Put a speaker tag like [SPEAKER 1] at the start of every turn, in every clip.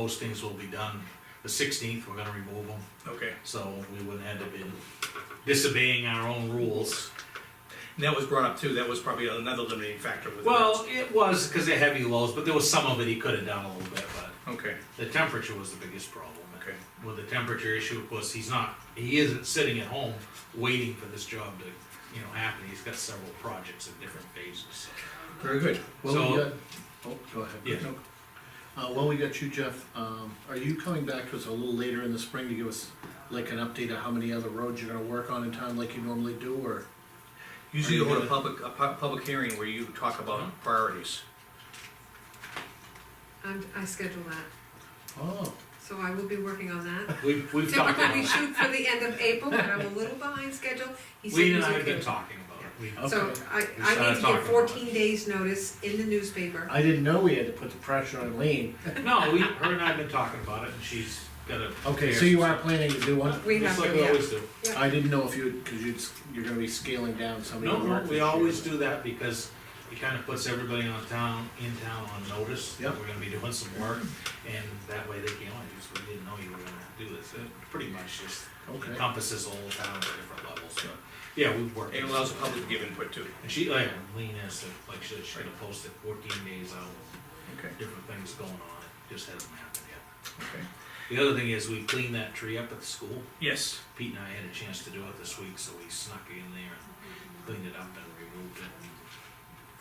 [SPEAKER 1] Postings will be done, the sixteenth, we're gonna remove them,
[SPEAKER 2] Okay,
[SPEAKER 1] so we wouldn't end up in disobeying our own rules.
[SPEAKER 2] and that was brought up too, that was probably another limiting factor with.
[SPEAKER 1] Well, it was because of heavy lows, but there was some of it he could have done a little bit, but
[SPEAKER 2] Okay,
[SPEAKER 1] the temperature was the biggest problem.
[SPEAKER 2] Okay.
[SPEAKER 1] With the temperature issue, of course, he's not, he isn't sitting at home waiting for this job to, you know, happen. He's got several projects in different phases, so.
[SPEAKER 2] very good.
[SPEAKER 1] So-
[SPEAKER 3] Well, we got, oh, go ahead.
[SPEAKER 1] Yeah.
[SPEAKER 2] No,
[SPEAKER 3] Uh, while we got you, Jeff, um, are you coming back to us a little later in the spring to give us like an update of how many other roads you're gonna work on in town like you normally do, or?
[SPEAKER 2] Usually
[SPEAKER 3] Are
[SPEAKER 2] you
[SPEAKER 3] you
[SPEAKER 2] hold a
[SPEAKER 3] good?
[SPEAKER 2] public, a pu- public hearing where you talk
[SPEAKER 1] Uh-huh.
[SPEAKER 2] about priorities.
[SPEAKER 4] I'm, I schedule that,
[SPEAKER 3] Oh,
[SPEAKER 4] so I will be working on that.
[SPEAKER 1] We've, we've talked about
[SPEAKER 4] Typically, we
[SPEAKER 1] it.
[SPEAKER 4] shoot for the end of April, but I'm a little behind schedule. He said
[SPEAKER 1] Lee
[SPEAKER 4] he's
[SPEAKER 1] and I have
[SPEAKER 4] okay.
[SPEAKER 1] been talking about it. We-
[SPEAKER 4] So
[SPEAKER 3] Okay.
[SPEAKER 4] I,
[SPEAKER 1] We
[SPEAKER 4] I
[SPEAKER 1] started
[SPEAKER 4] need to
[SPEAKER 1] talking
[SPEAKER 4] give
[SPEAKER 1] about
[SPEAKER 4] fourteen days notice in the newspaper.
[SPEAKER 3] I didn't know we had to put the pressure on Lean.
[SPEAKER 1] No, we, her and I have been talking about it and she's got a.
[SPEAKER 3] Okay, so you are planning to do one?
[SPEAKER 4] We
[SPEAKER 1] Just
[SPEAKER 4] have
[SPEAKER 1] like
[SPEAKER 4] to,
[SPEAKER 1] we
[SPEAKER 4] yeah.
[SPEAKER 1] always do.
[SPEAKER 3] I didn't know if you, cause you'd, s- you're gonna be scaling down some of your
[SPEAKER 1] No,
[SPEAKER 3] work.
[SPEAKER 1] no,
[SPEAKER 3] this
[SPEAKER 1] we
[SPEAKER 3] year.
[SPEAKER 1] always do that because it kind of puts everybody on town, in town on notice. that
[SPEAKER 3] Yep.
[SPEAKER 1] We're gonna be doing some work, and that way they can, oh, you just- we didn't know you were gonna do this. It pretty much just
[SPEAKER 3] Okay.
[SPEAKER 1] encompasses all the town at different levels, but, yeah, we work.
[SPEAKER 2] It allows the public to give input too.
[SPEAKER 1] And she, like, Lean has, to- like, she- she's gonna post it fourteen days out,
[SPEAKER 2] Okay,
[SPEAKER 1] different things going on, it just hasn't happened yet.
[SPEAKER 2] okay.
[SPEAKER 1] The other thing is, we cleaned that tree up at the school.
[SPEAKER 2] Yes,
[SPEAKER 1] Pete and I had a chance to do it this week, so we snuck in there and cleaned it up and removed it.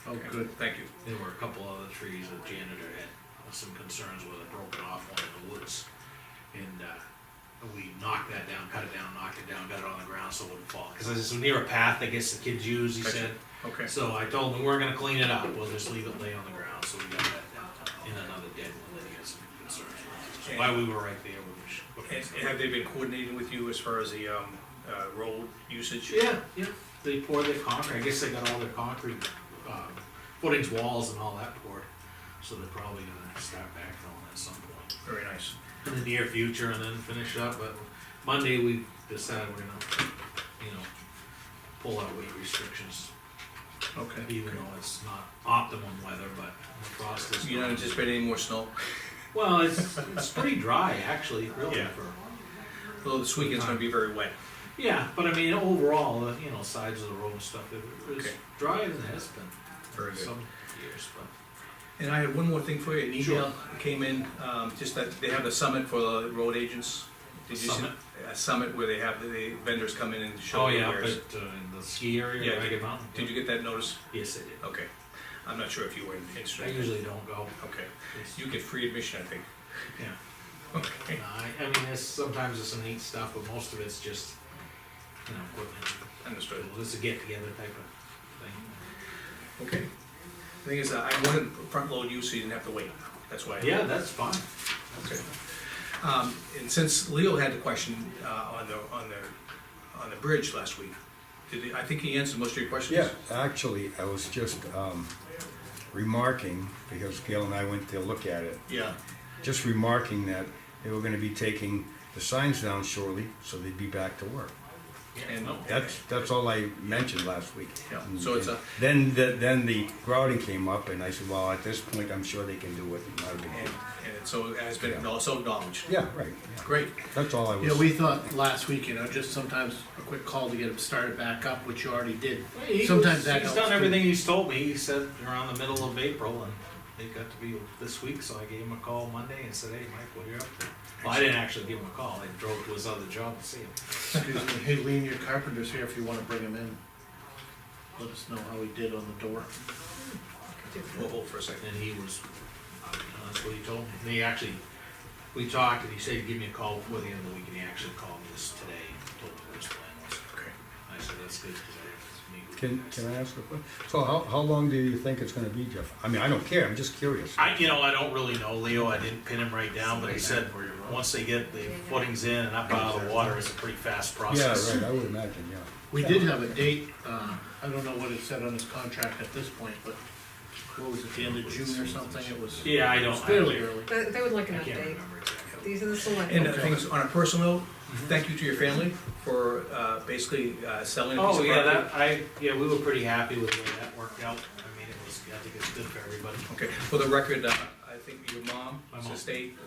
[SPEAKER 3] Oh,
[SPEAKER 2] Okay,
[SPEAKER 3] good.
[SPEAKER 2] thank you.
[SPEAKER 1] There were a couple other trees that janitor had some concerns with, a broken off one in the woods. And, uh, we knocked that down, cut it down, knocked it down, got it on the ground so it wouldn't fall. Cause it's near a path, I guess the kids use, he
[SPEAKER 2] Gotcha.
[SPEAKER 1] said.
[SPEAKER 2] Okay,
[SPEAKER 1] So I told him, we're gonna clean it up, we'll just leave it lay on the ground, so we got that down. And another dead one that he had some concerns with. So While we were right there, we were.
[SPEAKER 2] and and have they been coordinating with you as far as the, um, uh, road usage?
[SPEAKER 1] Yeah, yeah, they poured their concrete, I guess they got all their concrete, uh, footings, walls and all that poured, so they're probably gonna start backfilling at some point
[SPEAKER 2] Very nice.
[SPEAKER 1] in the near future and then finish up, but Monday we decided we're gonna, you know, pull out weight restrictions,
[SPEAKER 3] Okay.
[SPEAKER 1] even though it's not optimum weather, but the frost is.
[SPEAKER 2] You don't anticipate any more snow?
[SPEAKER 1] Well, it's, it's pretty dry, actually, really,
[SPEAKER 2] Yeah.
[SPEAKER 1] for
[SPEAKER 2] Although this weekend's gonna be very wet.
[SPEAKER 1] Yeah, but I mean, overall, uh, you know, sides of the road and stuff, it was
[SPEAKER 2] Okay.
[SPEAKER 1] drier than it has been
[SPEAKER 2] Very
[SPEAKER 1] for
[SPEAKER 2] good.
[SPEAKER 1] some years, but.
[SPEAKER 2] And I had one more thing for you, an email
[SPEAKER 1] Sure.
[SPEAKER 2] came in, um, just that they have a summit for the road agents. Did you see-
[SPEAKER 1] Summit?
[SPEAKER 2] A summit where they have the vendors come in and show
[SPEAKER 1] Oh,
[SPEAKER 2] their
[SPEAKER 1] yeah, up
[SPEAKER 2] wares.
[SPEAKER 1] at, uh, in the ski area,
[SPEAKER 2] Yeah,
[SPEAKER 1] Ragged Mountain.
[SPEAKER 2] Did you get that notice?
[SPEAKER 1] Yes, I did.
[SPEAKER 2] Okay, I'm not sure if you were
[SPEAKER 1] I
[SPEAKER 2] interested.
[SPEAKER 1] usually don't go.
[SPEAKER 2] Okay,
[SPEAKER 1] It's-
[SPEAKER 2] you get free admission, I think.
[SPEAKER 1] Yeah.
[SPEAKER 2] Okay,
[SPEAKER 1] No, I, I mean, there's, sometimes there's some neat stuff, but most of it's just, you know, equipment.
[SPEAKER 2] understood.
[SPEAKER 1] Well, It's a get-together type of thing.
[SPEAKER 2] Okay. The Thing is, uh, I wanted to front load you so you didn't have to wait, that's why. I-
[SPEAKER 1] Yeah, that's fine.
[SPEAKER 2] Okay. Um, and since Leo had the question, uh, on the, on the, on the bridge last week, did he, I think he answered most of your questions?
[SPEAKER 5] Yeah, actually, I was just um, remarking, because Gail and I went to look at it,
[SPEAKER 2] Yeah,
[SPEAKER 5] just remarking that they were gonna be taking the signs down shortly, so they'd be back to work.
[SPEAKER 2] and.
[SPEAKER 5] That's, that's all I mentioned last week.
[SPEAKER 2] Yeah, so it's a-
[SPEAKER 5] Then, the- then the grouting came up, and I said, well, at this point, I'm sure they can do it, not a big
[SPEAKER 2] And,
[SPEAKER 5] deal.
[SPEAKER 2] and it's so, has been also acknowledged.
[SPEAKER 5] Yeah, right, yeah.
[SPEAKER 2] Great,
[SPEAKER 5] that's all I was.
[SPEAKER 3] Yeah, we thought last week, you know, just sometimes a quick call to get them started back up, which you already did.
[SPEAKER 1] He
[SPEAKER 3] Sometimes
[SPEAKER 1] was- He's
[SPEAKER 3] that helps.
[SPEAKER 1] done
[SPEAKER 3] too.
[SPEAKER 1] everything he's told me. He said around the middle of April, and it got to be this week, so I gave him a call Monday and said, hey, Mike, what are you up to? Well, I didn't actually give him a call. I drove to his other job to see him.
[SPEAKER 3] Excuse me, hey, Lean, your carpenter's here if you wanna bring him in. Let us know how he did on the door.
[SPEAKER 2] we'll hold for a second.
[SPEAKER 1] And he was, uh, that's what he told me. And he actually, we talked, and he said, give me a call before the end of the week, and he actually called me this today, and told me what his plan was.
[SPEAKER 2] Okay.
[SPEAKER 1] I said, that's good, because I have to meet with you
[SPEAKER 5] Can,
[SPEAKER 1] guys."
[SPEAKER 5] can I ask a question? So how, how long do you think it's gonna be, Jeff? I mean, I don't care, I'm just curious.
[SPEAKER 1] I, you know, I don't really know, Leo, I didn't pin him right down, but he said, once they get the footings in and up out of the water, it's a pretty fast
[SPEAKER 5] Yeah,
[SPEAKER 1] process.
[SPEAKER 5] right, I would imagine, yeah.
[SPEAKER 3] We did have a date, uh, I don't know what it said on his contract at this point, but what was it, the end of June or something, it was.
[SPEAKER 1] Yeah, I
[SPEAKER 3] It
[SPEAKER 1] don't,
[SPEAKER 3] was
[SPEAKER 1] I
[SPEAKER 3] fairly
[SPEAKER 1] I
[SPEAKER 3] early.
[SPEAKER 4] They, they would like an
[SPEAKER 1] can't
[SPEAKER 4] update.
[SPEAKER 1] remember exactly.
[SPEAKER 4] These are the select.
[SPEAKER 2] And I think it's on a personal, note, thank you to your family for uh, basically uh, selling a piece
[SPEAKER 1] Oh,
[SPEAKER 2] of
[SPEAKER 1] yeah,
[SPEAKER 2] property.
[SPEAKER 1] that, I, yeah, we were pretty happy with the way that worked out. I mean, it was, I think it's good for everybody.
[SPEAKER 2] Okay, for the record, uh, I think your mom
[SPEAKER 1] My mom.
[SPEAKER 2] sustained,